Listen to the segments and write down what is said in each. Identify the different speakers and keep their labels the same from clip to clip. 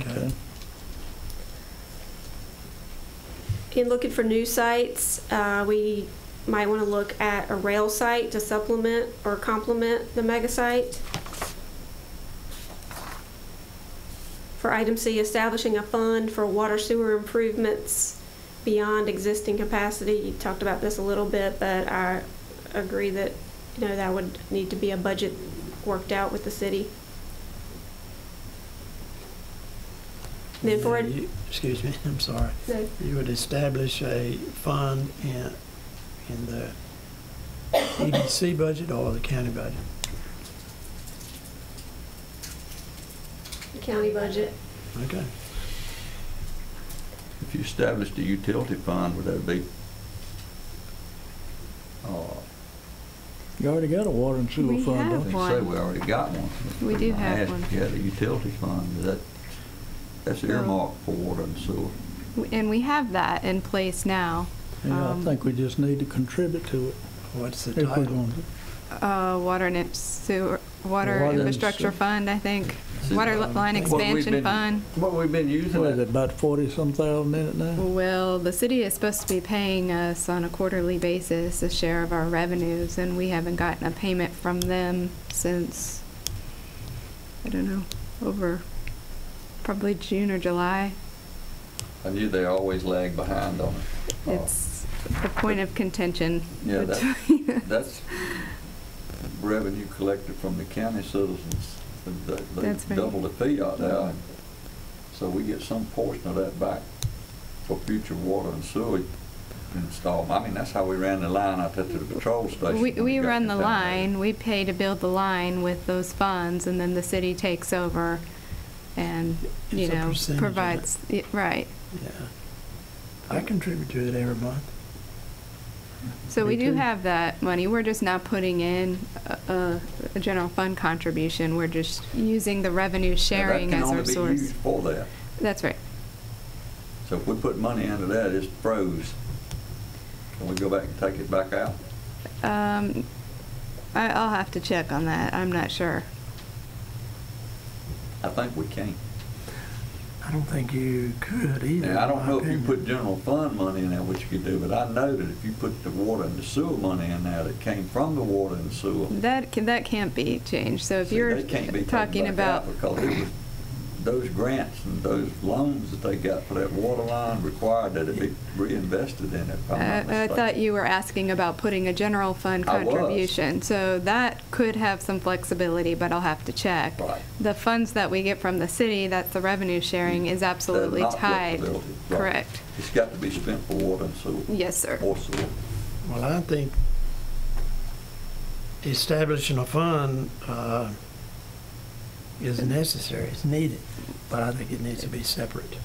Speaker 1: Okay.
Speaker 2: In looking for new sites, uh, we might want to look at a rail site to supplement or complement the mega site. For item C, establishing a fund for water sewer improvements beyond existing capacity. You talked about this a little bit, but I agree that, you know, that would need to be a budget worked out with the city. Then for,
Speaker 1: Yeah, you- Excuse me, I'm sorry.
Speaker 2: no,
Speaker 1: You would establish a fund in, in the E EDC budget or the county budget?
Speaker 2: county budget.
Speaker 1: Okay.
Speaker 3: If you established a utility fund, would that be, uh,
Speaker 4: You already got a water and sewer
Speaker 5: We
Speaker 4: fund,
Speaker 5: have
Speaker 4: don't
Speaker 3: They
Speaker 4: you?
Speaker 3: say
Speaker 5: one.
Speaker 3: we already got one.
Speaker 5: We do have one.
Speaker 3: Yeah, the utility fund, is that, that's
Speaker 5: Well-
Speaker 3: earmarked for water and sewer.
Speaker 5: And we have that in place now.
Speaker 4: Yeah, I
Speaker 5: Um,
Speaker 4: think we just need to contribute to it
Speaker 1: What's the
Speaker 4: if we're
Speaker 1: title?
Speaker 4: going to.
Speaker 5: Uh, Water and Imp- sewer,
Speaker 4: Water
Speaker 5: Water
Speaker 4: and
Speaker 5: Infrastructure
Speaker 4: sewer.
Speaker 5: Fund, I think.
Speaker 3: See,
Speaker 5: Water
Speaker 3: um, what
Speaker 5: Line
Speaker 3: we've
Speaker 5: Expansion
Speaker 3: been-
Speaker 5: Fund.
Speaker 3: What we've been using,
Speaker 4: What is
Speaker 3: it-
Speaker 4: it, about forty-some thousand in it now?
Speaker 5: Well, the city is supposed to be paying us on a quarterly basis a share of our revenues, and we haven't gotten a payment from them since, I don't know, over probably June or July.
Speaker 3: I knew they always lag behind on it. Uh,
Speaker 5: It's a point of contention
Speaker 3: Yeah, that-
Speaker 5: between us.
Speaker 3: That's revenue collected from the county citizens. They-
Speaker 5: That's
Speaker 3: They
Speaker 5: right.
Speaker 3: double the fee out there, so we get some portion of that back for future water and sewer installment. I mean, that's how we ran the line out there to the patrol station.
Speaker 5: We,
Speaker 3: when it
Speaker 5: we
Speaker 3: got
Speaker 5: run the
Speaker 3: contaminated.
Speaker 5: line, we pay to build the line with those funds, and then the city takes over and, you
Speaker 1: It's a
Speaker 5: know,
Speaker 1: percentage of it.
Speaker 5: provides, y- right.
Speaker 1: Yeah. I contribute to it every month.
Speaker 5: So
Speaker 1: Me
Speaker 5: we do
Speaker 1: too.
Speaker 5: have that money, we're just not putting in a- a, a general fund contribution, we're just using the revenue
Speaker 3: Yeah, that
Speaker 5: sharing
Speaker 3: can
Speaker 5: as
Speaker 3: only
Speaker 5: our
Speaker 3: be
Speaker 5: source.
Speaker 3: used For that.
Speaker 5: That's right.
Speaker 3: So if we put money into that, it's froze. Can we go back and take it back out?
Speaker 5: Um, I, I'll have to check on that, I'm not sure.
Speaker 3: I think we can.
Speaker 1: I don't think you could either.
Speaker 3: Now, I
Speaker 1: in
Speaker 3: don't
Speaker 1: my
Speaker 3: know if you
Speaker 1: opinion.
Speaker 3: put general fund money in there, what you could do, but I know that if you put the water and the sewer money in there that came from the water and sewer.
Speaker 5: That, can- that can't be changed, so if
Speaker 3: see,
Speaker 5: you're
Speaker 3: they can't be taken
Speaker 5: talking
Speaker 3: back out
Speaker 5: about
Speaker 3: Because it was, those grants and those loans that they got for that water line required that it be reinvested in it, if I'm not
Speaker 5: Uh, I I thought
Speaker 3: mistaken.
Speaker 5: you were asking about putting a general fund
Speaker 3: I was.
Speaker 5: contribution. So that could have some flexibility, but I'll have to check.
Speaker 3: Right.
Speaker 5: The funds that we get from the city, that's the revenue sharing, is absolutely
Speaker 3: That's not
Speaker 5: tied.
Speaker 3: flexibility, right.
Speaker 5: Correct.
Speaker 3: It's got to be spent for water and sewer.
Speaker 5: Yes, sir.
Speaker 3: Or sewer.
Speaker 1: Well, I think establishing a fund uh, is necessary, it's needed, but I think it needs to be separate.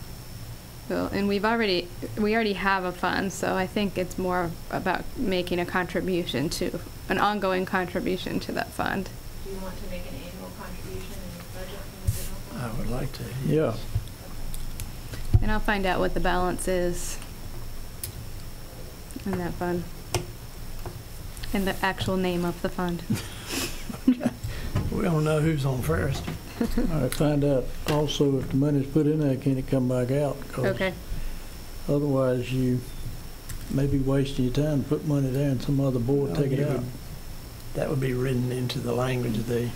Speaker 5: Well, And we've already, we already have a fund, so I think it's more about making a contribution to, an ongoing contribution to that fund.
Speaker 6: Do you want to make an annual contribution in the budget from the general fund?
Speaker 1: I would like to.
Speaker 4: Yeah.
Speaker 5: And I'll find out what the balance is in that fund. And the actual name of the fund.
Speaker 1: We don't know who's on first.
Speaker 4: All right, find out also if the money's put in there, can it come back out? 'Cause
Speaker 5: Okay,
Speaker 4: Otherwise, you may be wasting your time, put money there and some other board
Speaker 1: Well,
Speaker 4: take it
Speaker 1: you
Speaker 4: out.
Speaker 1: would- That would be written into the language of the,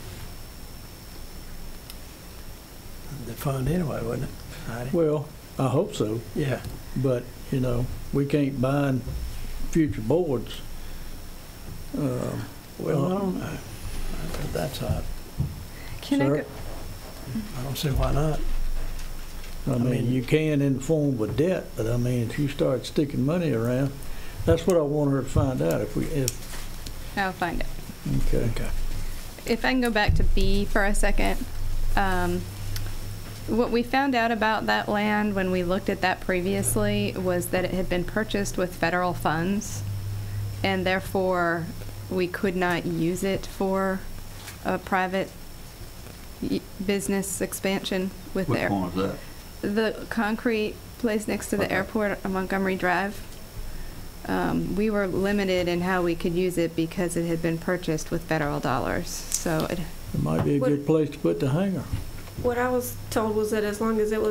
Speaker 1: the fund anyway, wouldn't it? Heidi?
Speaker 4: Well, I hope so,
Speaker 1: Yeah,
Speaker 4: but, you know, we can't bind future boards. Um,
Speaker 1: well, I don't know. But Oh, uh, That's, odd.
Speaker 5: can I
Speaker 4: Sir?
Speaker 5: go,
Speaker 1: I don't see why not.
Speaker 4: I mean, you can in the form of debt, but I mean, if you start sticking money around, that's what I want her to find out, if we, if,
Speaker 5: I'll find it.
Speaker 4: okay.
Speaker 5: If I can go back to B for a second. Um, What we found out about that land when we looked at that previously was that it had been purchased with federal funds. And therefore, we could not use it for a private y- business expansion with
Speaker 3: Which
Speaker 5: their.
Speaker 3: one is that?
Speaker 5: the concrete place next to the
Speaker 3: Okay.
Speaker 5: airport on Montgomery Drive. Um, we were limited in how we could use it because it had been purchased with federal dollars. So it
Speaker 4: It might be a
Speaker 2: What-
Speaker 4: good place to put the hangar.
Speaker 2: What I was told was that as long as it was